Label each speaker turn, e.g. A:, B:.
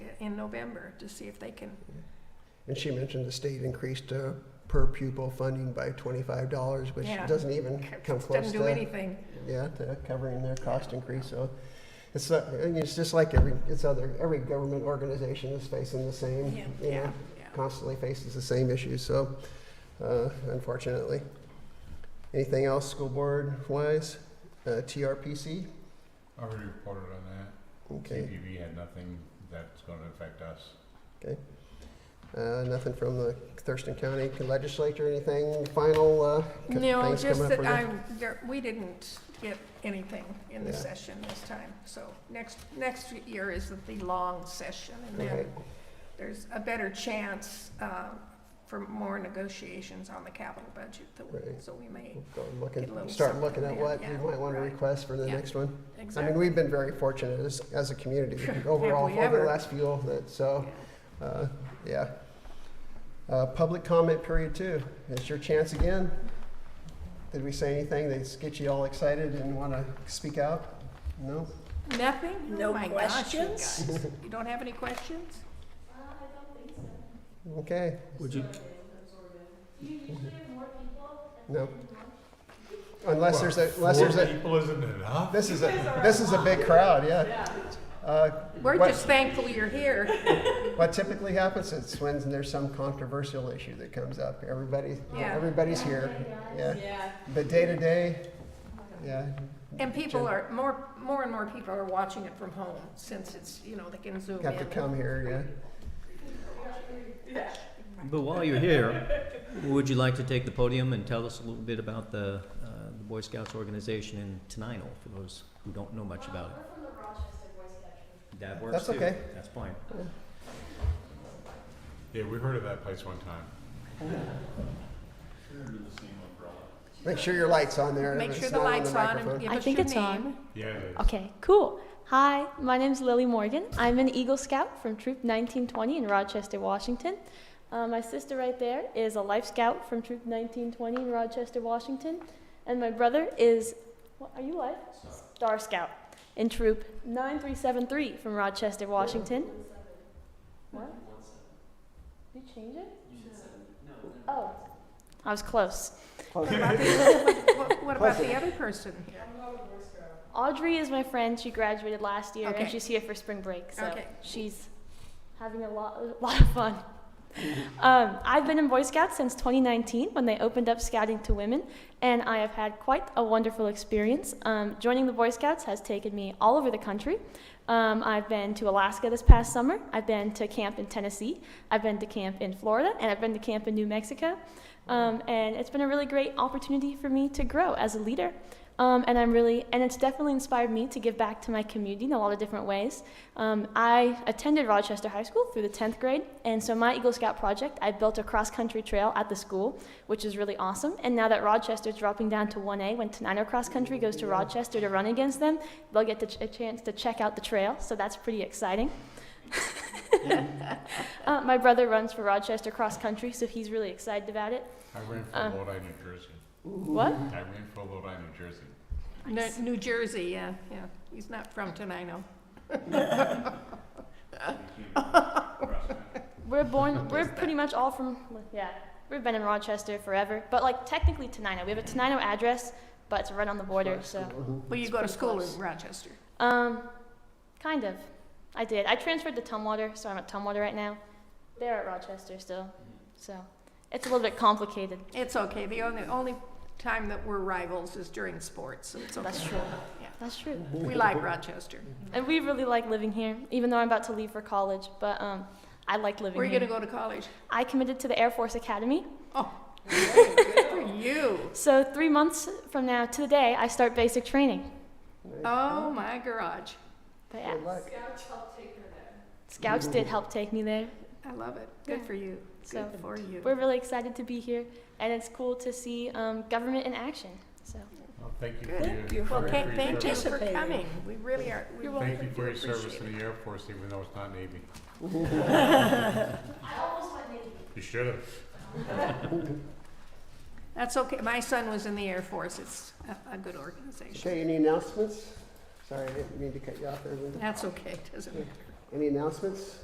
A: in November to see if they can.
B: And she mentioned the state increased uh, per pupil funding by twenty-five dollars, which
A: Yeah.
B: doesn't even come close
A: Doesn't do
B: to,
A: anything.
B: yeah, to covering their cost increase, so. It's, not- I mean, it's just like every, it's other, every government organization is facing the same,
A: Yeah,
B: you
A: yeah,
B: know, constantly faces the same issues, so, uh, unfortunately. Anything else, school board wise? Uh, TRPC?
C: Already reported on that.
B: Okay,
C: CPB had nothing that's gonna affect us.
B: uh, nothing from the Thurston County legislature, anything final, uh, co-
A: No,
B: things coming
A: just
B: up
A: that
B: for the-
A: I, there- we didn't get anything in the
B: Yeah.
A: session this time. So next, next year is the long session and
B: Okay.
A: then there's a better chance uh, for more negotiations on the capital budget. that we-
B: Right.
A: So we may,
B: Go look
A: Get a little
B: at, start
A: something
B: looking at
A: there,
B: what
A: yeah,
B: you might want to
A: right.
B: request for the
A: Yeah,
B: next one. I mean,
A: exactly.
B: we've been very fortunate as, as a community overall
A: we
B: over the
A: ever.
B: last few, of it, so,
A: Yeah.
B: uh, yeah. Uh, Public comment period two, it's your chance again. Did we say anything that gets you all excited and want to speak out? No?
A: Nothing?
D: No
A: Oh my gosh, you
D: questions?
A: guys. You don't have any questions?
B: Okay,
E: Would you,
B: no. Unless there's a, unless there's
C: Four
B: a,
C: people isn't enough?
B: this is a, this is a big crowd, yeah. Uh,
A: We're
B: what-
A: just thankful you're here.
B: What typically happens is when there's some controversial issue that comes up, everybody,
A: Yeah.
B: everybody's here, yeah. But day to day, yeah,
A: And people are, more, more and more people are watching it from home since it's, you know, they can zoom in.
B: have to come here,
E: but while you're here, would you like to take the podium and tell us a little bit about the, uh, the Boy Scouts organization in Tenino, for those who don't know much about it? That works
B: That's
E: too.
B: okay.
E: That's fine.
C: Yeah, we heard of that place one time.
B: yeah. Make sure your light's on there.
A: Make
B: if
A: sure
B: it's
A: the
B: not
A: light's on
B: microphone.
A: and give
F: I
A: us
F: think
A: your
F: it's on.
A: name.
C: Yeah, it is.
F: Okay, cool. Hi, my name's Lily Morgan. I'm an Eagle Scout from Troop 1920 in Rochester, Washington. Uh, my sister right there is a Life Scout from Troop 1920 in Rochester, Washington. And my brother is, what, are you Life? Star Scout in Troop 9373 from Rochester, Washington. What? Did you change it? Oh, I was close.
A: What- What about the other person here?
F: Audrey is my friend. She graduated last year,
A: Okay.
F: and she's here for spring break. So
A: Okay.
F: she's having a lot, a lot of fun. um, I've been in Boy Scouts since 2019 when they opened up scouting to women, and I have had quite a wonderful experience. Um, joining the Boy Scouts has taken me all over the country. Um, I've been to Alaska this past summer. I've been to camp in Tennessee. I've been to camp in Florida, and I've been to camp in New Mexico. Um, and it's been a really great opportunity for me to grow as a leader. Um, and I'm really, and it's definitely inspired me to give back to my community in a lot of different ways. Um, I attended Rochester High School through the 10th grade, and so my Eagle Scout project, I built a cross country trail at the school, which is really awesome. And now that Rochester's dropping down to 1A, when Tenino Cross Country goes to Rochester to run against them, they'll get the ch- a chance to check out the trail, so that's pretty exciting. uh, my brother runs for Rochester Cross Country, so he's really excited about it.
C: I ran for
A: Uh.
F: Um,
C: Lodi, New Jersey.
F: What?
C: I ran for Lodi, New Jersey.
A: New- New Jersey, yeah, yeah. He's not from Tenino. Uh.
F: We're born. We're pretty much all from. Yeah, we've been in Rochester forever, but like technically Tenino. We have a Tenino address, but it's right on the border. So,
A: Well,
B: Mm-hmm.
A: you
F: It's
A: go to
F: pretty
A: school
F: close.
A: in Rochester.
F: um, kind of. I did. I transferred to Tumwater, so I'm at Tumwater right now. They're at Rochester still, so it's a little bit complicated.
A: It's okay. The only, only time that we're rivals is during sports, so it's okay.
F: That's true.
A: Yeah.
F: That's true.
A: We like Rochester.
F: And we really like living here, even though I'm about to leave for college. But um, I like living
A: Where are you
F: here.
A: gonna go to college?
F: I committed to the Air Force Academy.
A: Oh, good for you.
F: So three months from now to the day, I start basic training.
A: Oh, my garage.
F: But yeah.
B: Good luck.
F: Scouts did help take me there.
A: I love it. Good
F: Yeah.
A: for you.
F: So
A: Good for
F: we're
A: you.
F: really excited to be here, and it's cool to see um, government in action. So
C: Well, thank you for your.
A: Good. Well,
C: for
A: ca-
C: your
A: thank you
C: service.
A: for
D: Participating.
A: coming. We really are. we
F: You're
C: Thank you
A: do
C: for your service
A: appreciate
C: in
A: it.
C: the Air Force, even though it's not Navy. You should have.
A: That's okay. My son was in the Air Force. It's a, a good organization.
B: Okay, any announcements? Sorry, I didn't mean to cut you off there. Linda.
A: That's okay. Doesn't matter.
B: Any announcements?